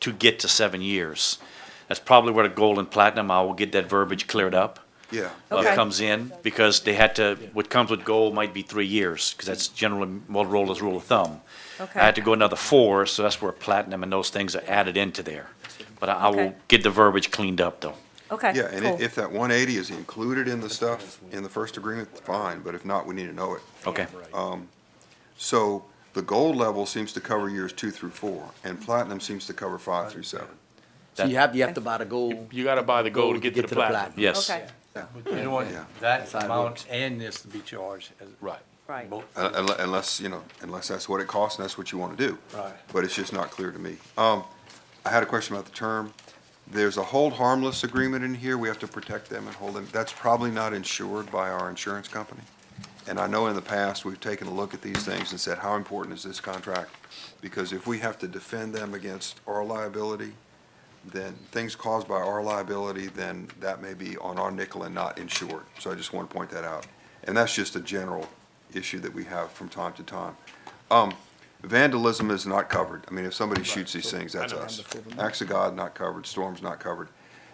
to get to seven years. That's probably where the gold and platinum, I will get that verbiage cleared up. Yeah. uh, Okay. Comes in, because they had to, what comes with gold might be three years, because that's generally Motorola's rule of thumb. Okay. I had to go another four, so that's where platinum and those things are added into there. But I I will Okay. get the verbiage cleaned up, though. Okay, Yeah, and cool. i- if that one eighty is included in the stuff, in the first agreement, fine, but if not, we need to know it. Okay, So the gold level seems to cover years two through four, and platinum seems to cover five through seven. So you have, you have to buy the gold. You gotta buy the gold to get to the platinum. yes. Okay, You don't want Yeah. that how it amount and this to be charged. as- Right. right. Both. Uh, unle- Unless, you know, unless that's what it costs and that's what you want to do. Right. But it's just not clear to me. Um, I had a question about the term. There's a hold harmless agreement in here. We have to protect them and hold them. That's probably not insured by our insurance company. And I know in the past, we've taken a look at these things and said, how important is this contract? Because if we have to defend them against our liability, then things caused by our liability, then that may be on our nickel and not insured. So I just want to point that out. And that's just a general issue that we have from time to time. Um, vandalism is not covered. I mean, if somebody shoots these things, that's us. Acts of God, not covered. Storms, not covered.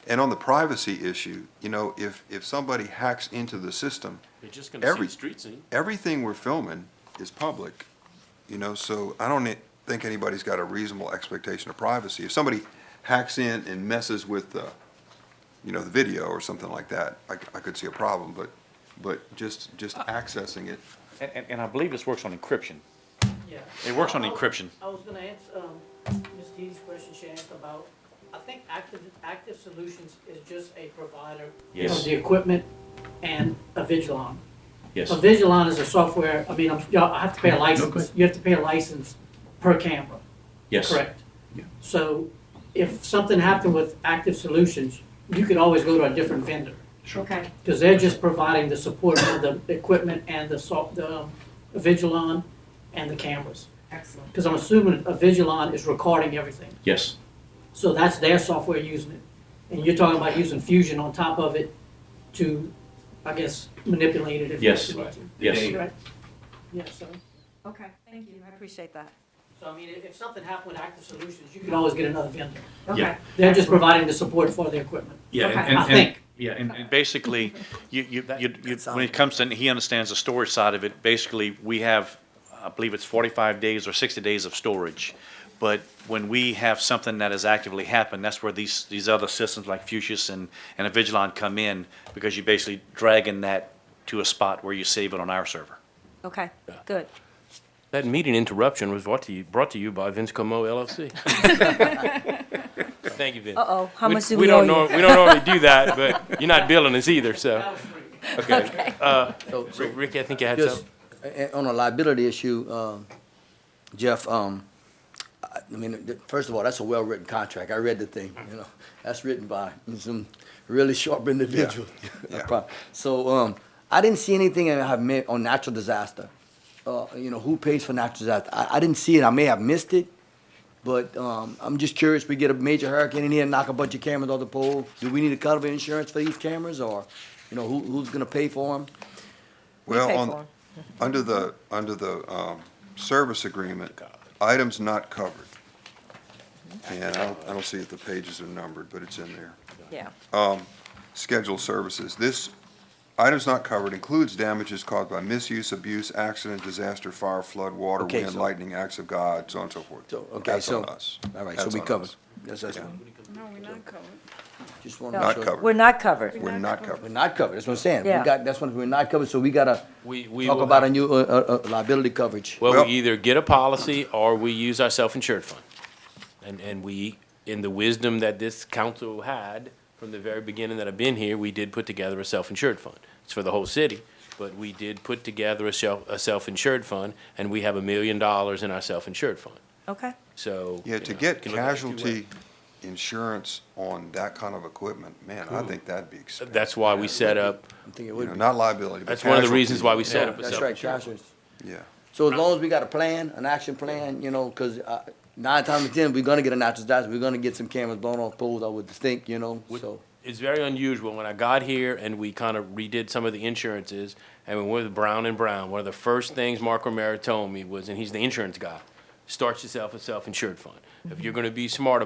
And on the privacy issue, you know, if, if somebody hacks into the system, They're just gonna see Every- the street scene. everything we're filming is public, you know, so I don't e-, think anybody's got a reasonable expectation of privacy. If somebody hacks in and messes with the, you know, the video or something like that, I, I could see a problem, but, but just, just accessing it. And, and- and I believe this works on encryption. It works on encryption. I was gonna answer, um, Ms. Dee's question she asked about, I think Active, Active Solutions is just a provider Yes. of the equipment and a Vigilon. Yes. A Vigilon Oh, is a software, I mean, I'm, y'all, I have to pay a license, you have to pay a license per camera. Yes. Correct. So if something happened with Active Solutions, you could always go to a different vendor. Okay, Because they're just providing the support for the equipment and the soft, the um, Vigilon and the cameras. excellent. Because I'm assuming a Vigilon is recording everything. Yes. So that's their software using it. And you're talking about using Fusion on top of it to, I guess, manipulate it if you Yes. need to. Yes. Right. Yeah, so, Okay, thank you, I appreciate that. so I mean, if if something happened with Active Solutions, you could always get another vendor. Okay. Yeah. They're just providing the support for the equipment. Yeah, and- Okay. and, I and- think. yeah, and, and basically, you, you, you, you, that when it comes to, he understands the storage side of it, basically, we have, I believe it's forty-five days or sixty days of storage. But when we have something that has actively happened, that's where these, these other systems like Fuchsia's and, and Avigilon come in, because you're basically dragging that to a spot where you save it on our server. Okay, good. That meeting interruption was brought to you, brought to you by Vince Como LLC. Thank you, Vince. Uh-oh, how much do We we don't owe nor, you? we don't normally do that, but you're not billing us either, so, was free. okay. So, so Rick, Rick, I think you had just, something. a- a- on a liability issue, um, Jeff, um, I I mean, th- first of all, that's a well-written contract. I read the thing, Mm-hmm. you know. That's written by some really sharp individuals. Yeah. Prob- So, um, I didn't see anything I have made on natural disaster. Uh, you know, who pays for natural disaster? I, I didn't see it. I may have missed it. But um, I'm just curious, we get a major hurricane in here and knock a bunch of cameras off the pole. Do we need to cover insurance for these cameras or, you know, who, who's gonna pay for them? Well, pay on, under the, under the, um, service agreement, items not covered. And I don't, I don't see if the pages are numbered, but it's in there. Yeah, scheduled services. This items not covered includes damages caused by misuse, abuse, accident, disaster, fire, flood, water, Okay, wind, so- lightning, acts of God, so on and so forth. So, okay, That's so- on us. All right, so That's we on covered. us. That's, that's, No, we're not covered. just wanna No, make Not sure. covered. we're not covered. We're not We're covered. not covered, that's what I'm saying. We Yeah. got, that's what, we're not covered, so we gotta We, we talk will about a have- new, uh, uh, uh, liability coverage. Well, Well- we either get a policy or we use our self-insured fund. And, and we, in the wisdom that this council had from the very beginning that I've been here, we did put together a self-insured fund. It's for the whole city, but we did put together a self, a self-insured fund, and we have a million dollars in our self-insured fund. Okay, So. Yeah, to you know, get you can look at it two casualty ways. insurance on that kind of equipment, man, I think that'd be expensive. That's why we set up, I think it You would know, be. not liability, but that's one of the casualty. reasons why we set Yeah, up a That's right, self-insured. casualties. Yeah, So as long as we got a plan, an action plan, you know, cause, uh, nine times out of ten, we're gonna get a natural disaster, we're gonna get some cameras blown off poles, I would think, you know, Would- so. It's very unusual. When I got here and we kind of redid some of the insurances, and we went with Brown and Brown, one of the first things Mark Romero told me was, and he's the insurance guy, start yourself a self-insured fund. If you're gonna be smart